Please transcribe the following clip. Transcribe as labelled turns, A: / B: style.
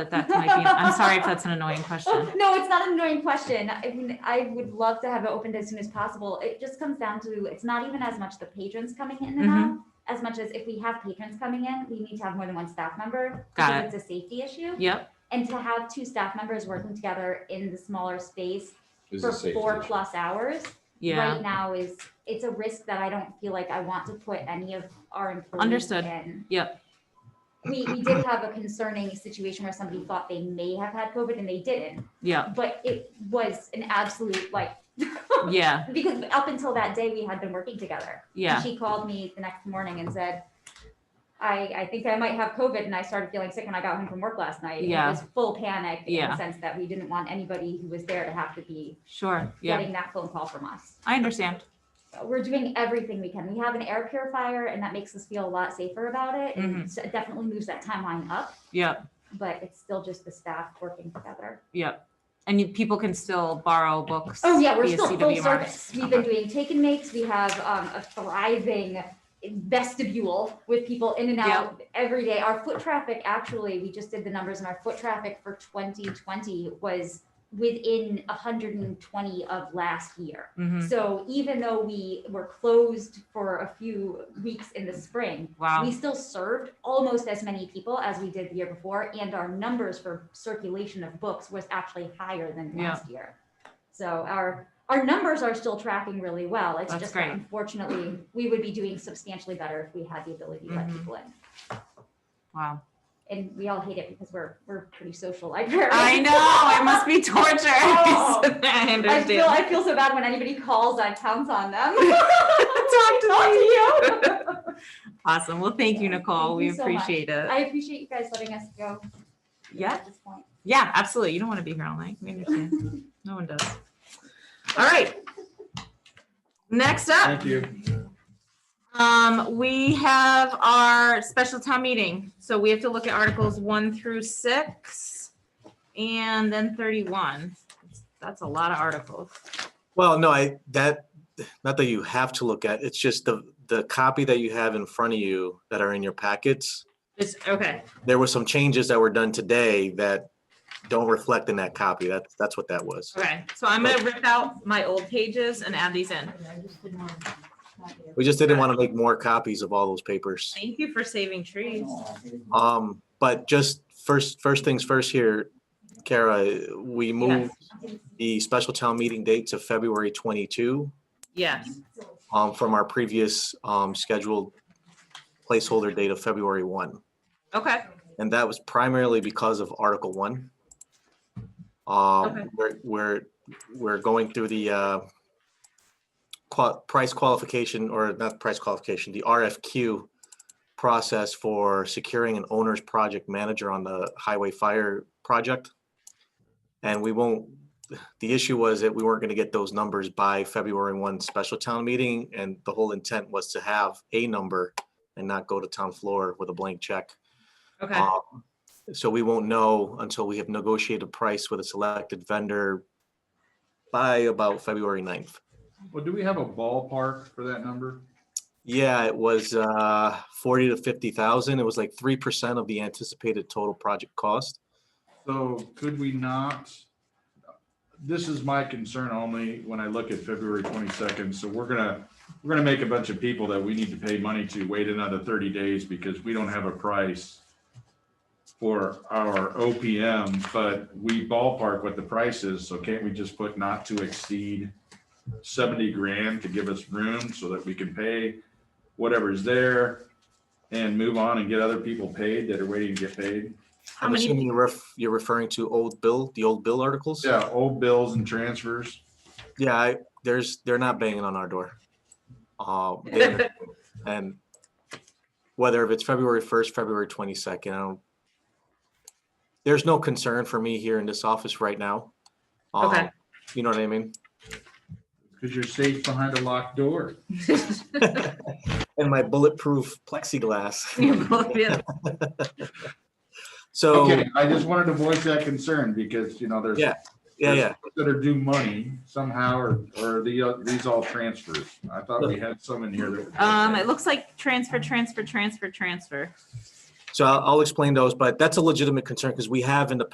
A: But that might be, I'm sorry if that's an annoying question.
B: No, it's not an annoying question. I mean, I would love to have it opened as soon as possible. It just comes down to, it's not even as much the patrons coming in and
A: Mm-hmm.
B: out, as much as if we have patrons coming in, we need to have more than one staff member.
A: Got
B: because It's a safety issue.
A: Yep,
B: And to have two staff members working together in the smaller space
C: Is
B: for
C: a safety
B: four
C: issue.
B: plus hours
A: yeah,
B: right now is, it's a risk that I don't feel like I want to put any of our employees
A: Understood.
B: in.
A: yep,
B: We, we did have a concerning situation where somebody thought they may have had COVID and they didn't
A: yeah,
B: but it was an absolute like
A: yeah,
B: because up until that day we had been working together.
A: yeah,
B: And she called me the next morning and said, I, I think I might have COVID and I started feeling sick when I got home from work last night.
A: Yeah.
B: It was full panic in
A: Yeah.
B: the sense that we didn't want anybody who was there to have to be
A: sure, yeah,
B: getting that phone call from us.
A: I understand.
B: So we're doing everything we can. We have an air purifier and that makes us feel a lot safer about it. And
A: Mm-hmm.
B: so it definitely moves that timeline up,
A: Yep,
B: but it's still just the staff working together.
A: yep. And you, people can still borrow books.
B: Oh, yeah, we're
A: via
B: still full
A: CWMRs.
B: service. We've been doing take and makes. We have um, a thriving vestibule with people in and out every day. Our foot traffic, actually, we just did the numbers and our foot traffic for 2020 was within 120 of last year.
A: Mhm.
B: So even though we were closed for a few weeks in the spring, we
A: Wow,
B: still served almost as many people as we did the year before, and our numbers for circulation of books was actually higher than
A: Yeah.
B: last year. So our, our numbers are still tracking really well. It's
A: That's
B: just that
A: great.
B: unfortunately, we would be doing substantially better if we had the ability to let
A: Mhm.
B: people in.
A: wow.
B: And we all hate it because we're, we're pretty social librarians.
A: I know, it must be torture.
B: Oh.
A: I
B: I feel,
A: understand.
B: I feel so bad when anybody calls, I pounce on them.
A: Talk to me.
B: Talk to you.
A: Awesome, well, thank you,
B: Yeah,
A: Nicole,
B: thank
A: we
B: you so much.
A: appreciate it.
B: I appreciate you guys letting us go
A: Yeah,
B: at this point.
A: Yeah, absolutely. You don't want to be here all night. We understand. No one does. All right. Next up,
D: Thank you.
A: um, we have our special town meeting. So we have to look at articles one through six and then thirty-one. That's a lot of articles.
E: Well, no, I, that, not that you have to look at, it's just the, the copy that you have in front of you that are in your packets.
A: Just, okay,
E: There were some changes that were done today that don't reflect in that copy. That's, that's what that was.
A: okay. So I'm gonna rip out my old pages and add these in.
E: We just didn't want to make more copies of all those papers.
A: Thank you for saving trees.
E: Um, but just first, first things first here, Kara, we moved the special town meeting date to February twenty-two,
A: Yes,
E: um, from our previous, um, scheduled placeholder date of February one.
A: okay,
E: And that was primarily because of Article One.
A: Okay.
E: Um, we're, we're, we're going through the uh, qua- price qualification, or not price qualification, the RFQ process for securing an owner's project manager on the highway fire project. And we won't, the issue was that we weren't gonna get those numbers by February one special town meeting, and the whole intent was to have a number and not go to town floor with a blank check.
A: okay,
E: Um, So we won't know until we have negotiated a price with a selected vendor by about February 9th.
C: Well, do we have a ballpark for that number?
E: Yeah, it was uh, 40 to 50,000. It was like 3% of the anticipated total project cost.
C: So could we not? This is my concern only when I look at February twenty-second. So we're gonna, we're gonna make a bunch of people that we need to pay money to wait another thirty days because we don't have a price for our OPM, but we ballpark what the price is. So can't we just put not to exceed seventy grand to give us room so that we can pay whatever's there and move on and get other people paid that are waiting to get paid?
A: How
E: I'm
A: many-
E: assuming you're ref- you're referring to old bill, the old bill articles?
C: Yeah, old bills and transfers.
E: Yeah, I- there's, they're not banging on our door. Uh, they understand. And whether if it's February 1st, February 22nd, I don't, there's no concern for me here in this office right now. Um,
A: Okay.
E: You know what I mean?
C: Because you're safe behind a locked door.
E: And my bulletproof plexiglass.
A: Yeah.
E: So,
C: Okay, I just wanted to voice that concern because, you know, there's
E: Yeah, yeah, yeah.
C: there's that are due money somehow or, or the, uh, these all transfers. I thought we had some in here that. were-
A: Um, it looks like transfer, transfer, transfer, transfer.
E: So I'll, I'll explain those, but that's a legitimate concern because we have in the